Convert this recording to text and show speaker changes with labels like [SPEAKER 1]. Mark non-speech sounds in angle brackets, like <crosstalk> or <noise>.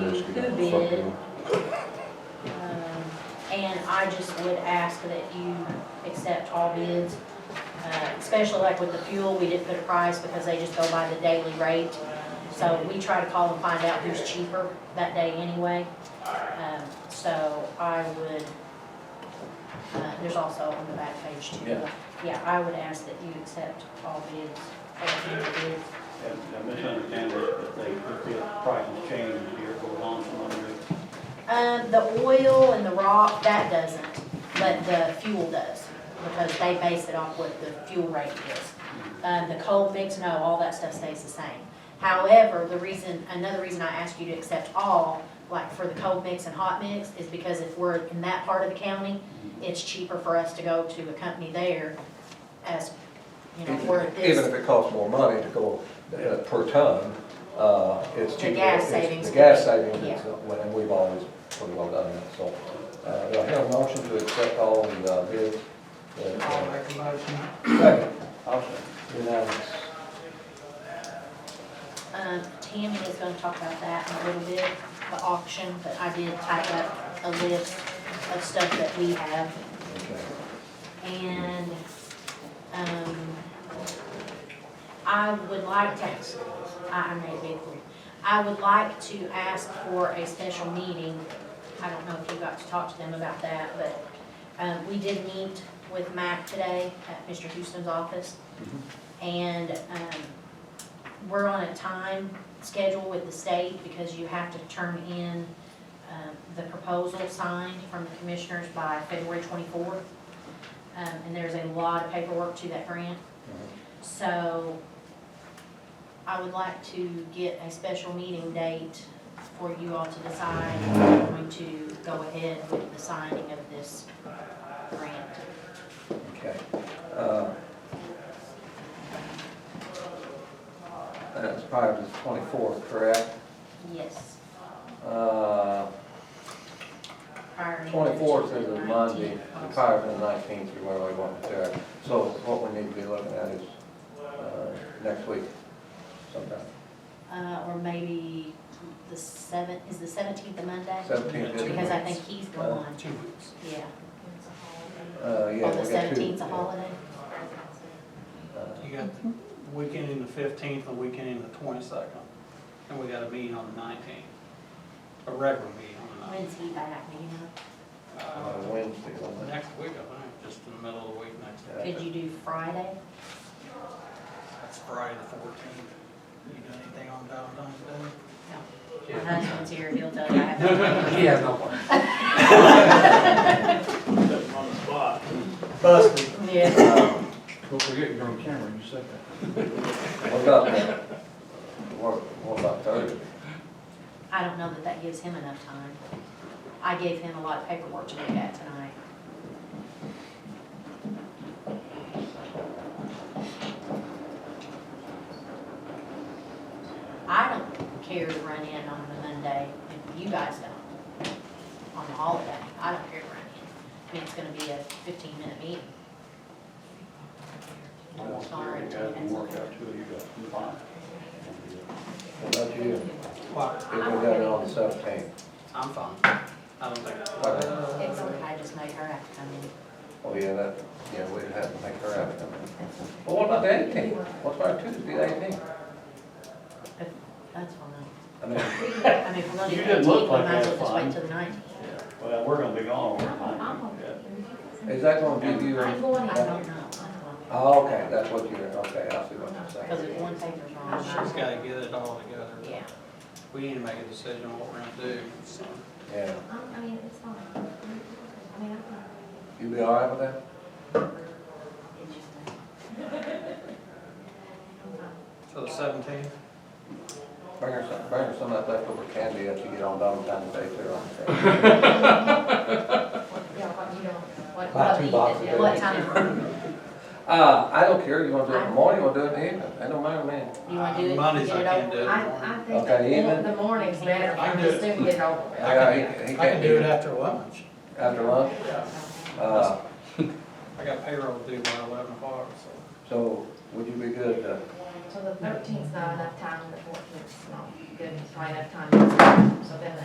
[SPEAKER 1] just get
[SPEAKER 2] Who did?
[SPEAKER 1] something.
[SPEAKER 2] Um, And I just would ask that you accept all bids, uh, especially like with the fuel, we didn't put a price because they just go by the daily rate. So we try to call and find out who's cheaper that day anyway. Um, So I would, uh, there's also on the back page too.
[SPEAKER 3] Yeah.
[SPEAKER 2] Yeah, I would ask that you accept all bids, all fuel bids.
[SPEAKER 4] And I misunderstand this, but they, put the price has changed here goes on from under.
[SPEAKER 2] Um, the oil and the rock, that doesn't, but the fuel does, because they base it off what the fuel rate is. Um, the coal mix, no, all that stuff stays the same. However, the reason, another reason I asked you to accept all, like for the coal mix and hot mix, is because if we're in that part of the county, it's cheaper for us to go to a company there as, you know, where it
[SPEAKER 5] Even
[SPEAKER 2] is.
[SPEAKER 5] if it costs more money to go uh, per ton, uh, it's
[SPEAKER 2] The
[SPEAKER 5] cheaper. It's-
[SPEAKER 2] gas savings
[SPEAKER 5] The gas
[SPEAKER 2] could be-
[SPEAKER 5] savings,
[SPEAKER 2] yeah.
[SPEAKER 5] is, uh, and we've always pretty well done that, so. uh, Do I have a motion to accept all the uh, bids?
[SPEAKER 6] I'll make a motion.
[SPEAKER 5] Second,
[SPEAKER 4] I'll say.
[SPEAKER 5] unanimous.
[SPEAKER 2] Um, Tammy is gonna talk about that in a little bit, the auction, but I did type up a list of stuff that we have.
[SPEAKER 5] Okay.
[SPEAKER 2] And, um, I would like to, I I made a big one. I would like to ask for a special meeting. I don't know if you got to talk to them about that, but, um, we did meet with Matt today at Mr. Houston's office. And, um, we're on a time schedule with the state because you have to turn in, um, the proposal signed from the commissioners by February twenty-fourth. Um, and there's a lot of paperwork to that grant. So I would like to get a special meeting date for you all to decide if we're going to go ahead with the signing of this grant.
[SPEAKER 5] Okay. Uh, That's prior to the twenty-fourth, correct?
[SPEAKER 2] Yes,
[SPEAKER 5] Uh,
[SPEAKER 2] prior to. the
[SPEAKER 5] Twenty-fourth is a Monday,
[SPEAKER 2] 19th also.
[SPEAKER 5] prior to the nineteenth, is where we want to start. So what we need to be looking at is, uh, next week sometime.
[SPEAKER 2] Uh, or maybe the seventh, is the seventeenth a Monday?
[SPEAKER 5] Seventeenth is.
[SPEAKER 2] Because I think he's gone,
[SPEAKER 6] Two weeks.
[SPEAKER 2] yeah.
[SPEAKER 5] Uh, yeah.
[SPEAKER 2] Or the
[SPEAKER 5] we got two.
[SPEAKER 2] seventeenth's a holiday?
[SPEAKER 5] Uh,
[SPEAKER 6] You got the weekend in the fifteenth, the weekend in the twenty-second, and we got a meeting on the nineteenth, a regular meeting on the nineteenth.
[SPEAKER 2] When's
[SPEAKER 6] Uh,
[SPEAKER 2] he back, do you
[SPEAKER 5] on
[SPEAKER 2] know?
[SPEAKER 5] a Wednesday, on
[SPEAKER 6] Next week, I think, just in the middle of the week next
[SPEAKER 5] Yeah.
[SPEAKER 6] week.
[SPEAKER 2] Could you do Friday?
[SPEAKER 6] That's Friday the fourteenth. You do anything on Valentine's Day?
[SPEAKER 2] My husband's here, he'll tell you I have.
[SPEAKER 5] He has no one.
[SPEAKER 4] on the spot.
[SPEAKER 5] Busted.
[SPEAKER 2] Yeah.
[SPEAKER 5] Uh,
[SPEAKER 1] Don't forget, you're on camera, you said that.
[SPEAKER 5] What about that? What, what about Thursday?
[SPEAKER 2] I don't know that that gives him enough time. I gave him a lot of paperwork to look at tonight. I don't care to run in on the Monday, if you guys don't, on the holiday, I don't care to run in. I mean, it's gonna be a fifteen minute meeting.
[SPEAKER 4] I want to hear you guys can work out two of you guys. Come on.
[SPEAKER 5] What about you?
[SPEAKER 6] What?
[SPEAKER 5] If we got it on the seventeenth,
[SPEAKER 6] I'm fine. I don't think.
[SPEAKER 2] It's okay, I just made her have to come in.
[SPEAKER 5] oh, yeah, that, yeah, we'd have to make her out of it. Well, what about the eighteenth? What's our Tuesday, the eighteenth?
[SPEAKER 2] That's fine.
[SPEAKER 5] I mean,
[SPEAKER 2] I mean, if we're gonna
[SPEAKER 4] You
[SPEAKER 2] do
[SPEAKER 4] didn't
[SPEAKER 2] that,
[SPEAKER 4] look
[SPEAKER 2] we
[SPEAKER 4] like
[SPEAKER 2] might as well
[SPEAKER 4] that,
[SPEAKER 2] just wait
[SPEAKER 4] fine.
[SPEAKER 2] till the nineteenth.
[SPEAKER 4] uh, Well, we're gonna be gone over time.
[SPEAKER 5] is that gonna give you? a-
[SPEAKER 2] I'm going, I don't know.
[SPEAKER 5] Oh, okay, that's what you're, okay, I see what you're saying.
[SPEAKER 2] Because if one paper's wrong,
[SPEAKER 6] She's
[SPEAKER 2] I'm,
[SPEAKER 6] gotta get it all together.
[SPEAKER 2] yeah.
[SPEAKER 6] We need to make a decision on what we're gonna do, so.
[SPEAKER 5] Yeah,
[SPEAKER 7] I mean, it's fine. I mean, I'm fine.
[SPEAKER 5] you be all right with that?
[SPEAKER 6] So the seventeenth?
[SPEAKER 5] Bring her some, bring her some of that leftover candy that you get on Valentine's Day too. on
[SPEAKER 6] <laughs>
[SPEAKER 5] the
[SPEAKER 7] Yeah, but you don't, what,
[SPEAKER 5] Buy two boxes. of
[SPEAKER 2] What
[SPEAKER 5] it.
[SPEAKER 2] time?
[SPEAKER 5] Uh, I don't care, you wanna do it in the morning, you wanna do it in the evening, I don't mind, man.
[SPEAKER 2] You wanna do it?
[SPEAKER 6] Mondays
[SPEAKER 2] get
[SPEAKER 6] I
[SPEAKER 2] it
[SPEAKER 6] can't
[SPEAKER 2] over?
[SPEAKER 6] do it.
[SPEAKER 7] I, I think
[SPEAKER 5] Okay,
[SPEAKER 7] the-
[SPEAKER 5] even?
[SPEAKER 7] the morning's better,
[SPEAKER 6] I
[SPEAKER 7] I
[SPEAKER 6] can
[SPEAKER 7] just
[SPEAKER 6] do it.
[SPEAKER 7] didn't get over with.
[SPEAKER 5] Yeah, he- he
[SPEAKER 6] I can
[SPEAKER 5] can't
[SPEAKER 6] do
[SPEAKER 5] do
[SPEAKER 6] it
[SPEAKER 5] it.
[SPEAKER 6] after lunch.
[SPEAKER 5] After lunch,
[SPEAKER 6] Yeah.
[SPEAKER 5] uh,
[SPEAKER 6] I got payroll due by eleven o'clock, so.
[SPEAKER 5] so would you be good, uh,
[SPEAKER 7] so the thirteenth's not enough time, and the fourteenth's not good, it's probably enough time, so then the